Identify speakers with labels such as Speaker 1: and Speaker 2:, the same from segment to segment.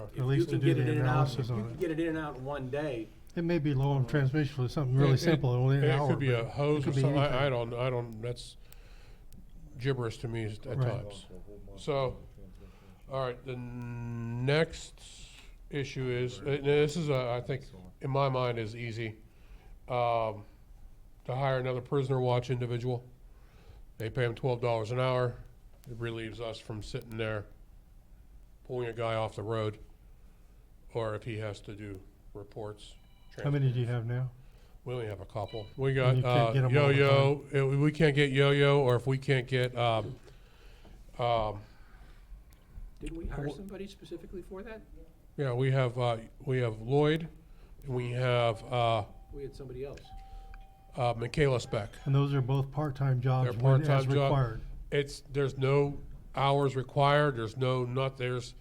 Speaker 1: out. If
Speaker 2: At
Speaker 1: you
Speaker 2: least to
Speaker 1: can
Speaker 2: do
Speaker 1: get it
Speaker 2: the
Speaker 1: in and out-
Speaker 2: analysis
Speaker 1: if you
Speaker 2: on
Speaker 1: can
Speaker 2: it.
Speaker 1: Get it in and out in one day,
Speaker 2: It may be low on transmission, it's something
Speaker 3: It-
Speaker 2: really
Speaker 3: it-
Speaker 2: simple, only an hour.
Speaker 3: It could be
Speaker 2: but
Speaker 3: a hose or
Speaker 2: could be
Speaker 3: something, I, I
Speaker 2: anything.
Speaker 3: don't, I don't, that's gibberish to me at
Speaker 2: Right.
Speaker 3: times. So, all right, the next issue is, uh, now this is, uh, I think, in my mind is easy. Um, to hire another prisoner watch individual. They pay him twelve dollars an hour. It relieves us from sitting there pulling a guy off the road. Or if he has to do reports.
Speaker 2: How many do you have now?
Speaker 3: We only have a couple. We
Speaker 2: And
Speaker 3: got
Speaker 2: you can't
Speaker 3: uh,
Speaker 2: get 'em all the
Speaker 3: Yo-Yo, Uh, we we can't get Yo-Yo, or if we can't get, um, um,
Speaker 1: didn't we hire
Speaker 3: Well-
Speaker 1: somebody specifically for that?
Speaker 3: yeah, we have, uh, we have Lloyd, and we have uh,
Speaker 1: We had somebody else.
Speaker 3: uh, Michaela Speck.
Speaker 2: And those are both part-time jobs,
Speaker 3: They're
Speaker 2: when as
Speaker 3: part-time job.
Speaker 2: required.
Speaker 3: It's, there's no hours required, there's no, not, there's,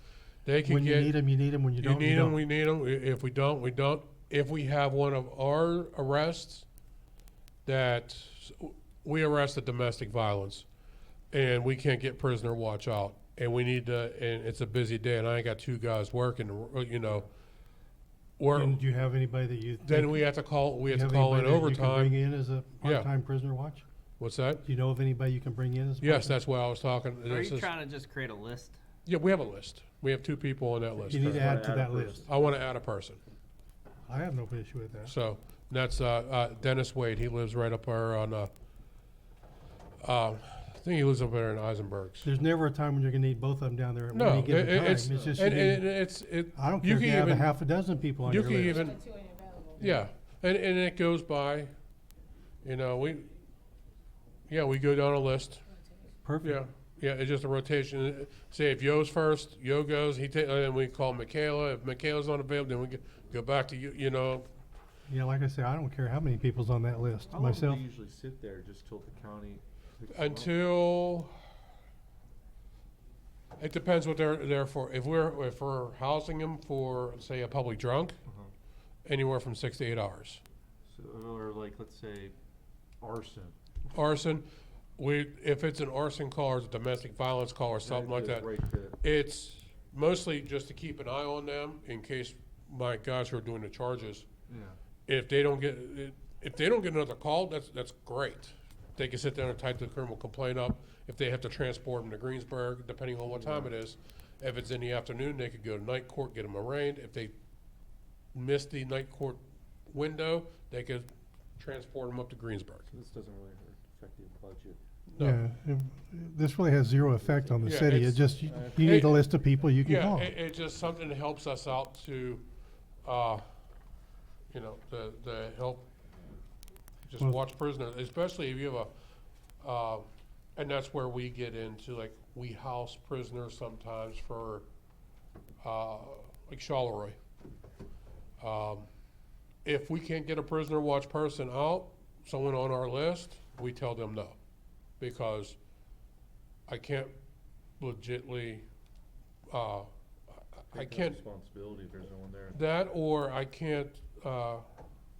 Speaker 3: they can
Speaker 2: When you
Speaker 3: get.
Speaker 2: need them, you need them, when you
Speaker 3: You
Speaker 2: don't, you
Speaker 3: need them,
Speaker 2: don't.
Speaker 3: we need them. If we don't, we don't. If we have one of our arrests that, we arrested domestic violence and we can't get prisoner watch out and we need to, and it's a busy day and I ain't got two guys working, uh, you know. Or,
Speaker 2: And do you have anybody that you?
Speaker 3: then
Speaker 2: think-
Speaker 3: we have to call, we
Speaker 2: do you
Speaker 3: have to
Speaker 2: have
Speaker 3: call in
Speaker 2: anybody that you can Bring
Speaker 3: overtime.
Speaker 2: in as a
Speaker 3: Yeah.
Speaker 2: part-time prisoner watch?
Speaker 3: What's that?
Speaker 2: Do you know of anybody you can bring in as? a
Speaker 3: Yes,
Speaker 2: part-time?
Speaker 3: that's what I was talking.
Speaker 4: Are
Speaker 3: This
Speaker 4: you
Speaker 3: is-
Speaker 4: trying to just create a list?
Speaker 3: Yeah, we have a list. We have two people on that list.
Speaker 2: You need to
Speaker 3: currently.
Speaker 2: add to
Speaker 1: Add a
Speaker 2: that
Speaker 1: person.
Speaker 2: list.
Speaker 3: I want to add a person.
Speaker 2: I have no issue with that.
Speaker 3: So that's uh, uh, Dennis Wade. He lives right up there on. Uh, uh, I think he lives up there in Eisenberg's.
Speaker 2: There's never a time when you're gonna need both of them down there at
Speaker 3: No,
Speaker 2: any
Speaker 3: it,
Speaker 2: given time. It's
Speaker 3: it's
Speaker 2: just, you
Speaker 3: and, and
Speaker 2: need-
Speaker 3: it's it.
Speaker 2: I don't care
Speaker 3: you
Speaker 2: if
Speaker 3: can
Speaker 2: you have a
Speaker 3: even-
Speaker 2: half a dozen people on
Speaker 3: you
Speaker 2: your
Speaker 3: can
Speaker 2: list.
Speaker 3: even yeah, and and it goes by. You know we. Yeah, we go down a list. Yeah,
Speaker 2: Perfect.
Speaker 3: yeah, it's just a rotation. Say if Yo's first, Yo goes. He ta- and we call Michaela. If Michaela's not available, then we g- go back to you. You know,
Speaker 2: Yeah, like I said, I don't care how many people's on that list,
Speaker 5: How long do
Speaker 2: myself.
Speaker 5: they usually sit there just till the county? picks
Speaker 3: Uh,
Speaker 5: them up?
Speaker 3: Until, it depends what they're there for. If we're, if we're housing them for, say, a public drunk,
Speaker 5: Uh-huh.
Speaker 3: anywhere from six to eight hours.
Speaker 5: So, or like, let's say arson.
Speaker 3: Arson, we, if it's an arson call or it's a domestic violence call or something like that,
Speaker 5: Right there.
Speaker 3: it's mostly just to keep an eye on them in case my guys who are doing the charges,
Speaker 5: Yeah.
Speaker 3: if they don't get, if they don't get another call, that's, that's great. They can sit down and type the criminal complaint up. If they have to transport them to Greensburg, depending on what time it is. If it's in the afternoon, they could go to night court, get them arraigned. If they miss the night court window, they could transport them up to Greensburg.
Speaker 5: So this doesn't really affect the budget.
Speaker 3: No.
Speaker 2: Yeah, it- this really has zero effect on the
Speaker 3: Yeah,
Speaker 2: city. It
Speaker 3: it's-
Speaker 2: just, you you
Speaker 3: it-
Speaker 2: need a list of people you can
Speaker 3: Yeah,
Speaker 2: call.
Speaker 3: it, it's just something that helps us out to, uh, you know, the, the help, just
Speaker 2: Well-
Speaker 3: watch prisoners, especially if you have a, uh, and that's where we get into, like, we house prisoners sometimes for, uh, like Charleroi. Um, If we can't get a prisoner watch person out, someone on our list, we tell them no, because I can't legitly, uh, I- I
Speaker 5: Take that
Speaker 3: can't
Speaker 5: Responsibility if there's no one there.
Speaker 3: that or I can't uh,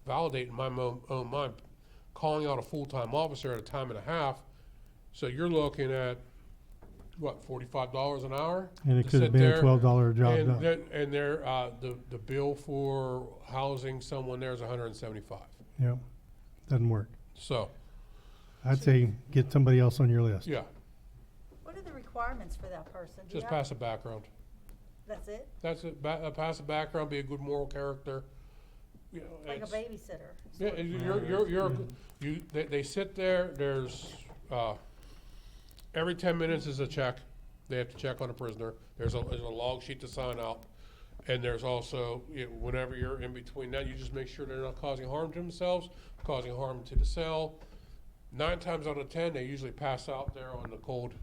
Speaker 3: validate in my mo- own mind calling out a full-time officer at a time and a half. So you're looking at, what, forty-five dollars an hour?
Speaker 2: And it
Speaker 3: to
Speaker 2: could have
Speaker 3: sit
Speaker 2: been a
Speaker 3: there
Speaker 2: twelve dollar job
Speaker 3: and
Speaker 2: done.
Speaker 3: then- And their, uh, the, the bill for housing someone there is hundred and seventy-five.
Speaker 2: Yeah, doesn't work.
Speaker 3: So,
Speaker 2: I'd say get somebody else on your list.
Speaker 3: yeah,
Speaker 6: What are the requirements for that person? Do you
Speaker 3: just
Speaker 6: have-
Speaker 3: pass a background.
Speaker 6: That's it?
Speaker 3: That's it, ba- uh, pass a background, be a good moral character, you know.
Speaker 6: Like a
Speaker 3: it's-
Speaker 6: babysitter?
Speaker 3: Yeah, and you're, you're, you're, you, they, they sit there, there's, uh, every ten minutes is a check. They have to check on a prisoner. There's a, there's a log sheet to sign out. And there's also, you know, whenever you're in between that, you just make sure they're not causing harm to themselves, causing harm to the cell. Nine times out of ten, they usually pass out there on the cold,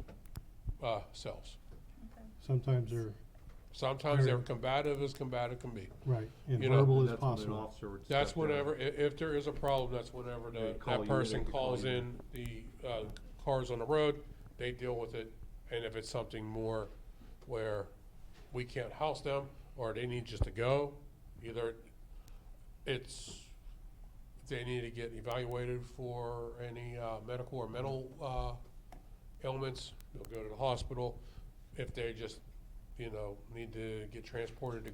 Speaker 3: uh, cells.
Speaker 2: Sometimes they're,
Speaker 3: Sometimes they're
Speaker 2: Very-
Speaker 3: combative as combative can be.
Speaker 2: right, and
Speaker 3: You know,
Speaker 2: verbal
Speaker 5: And
Speaker 2: as
Speaker 5: that's when an
Speaker 2: possible.
Speaker 5: officer would
Speaker 3: That's
Speaker 5: step down.
Speaker 3: whenever, i- if there is a problem, that's whenever
Speaker 5: uh, They
Speaker 3: the,
Speaker 5: call
Speaker 3: that
Speaker 5: you, they
Speaker 3: person
Speaker 5: can call
Speaker 3: calls
Speaker 5: you.
Speaker 3: in the, uh, cars on the road, they deal with it. And if it's something more where we can't house them, or they need just to go, either it's, they need to get evaluated for any, uh, medical or mental, uh, ailments, they'll go to the hospital. If they just, you know, need to get transported to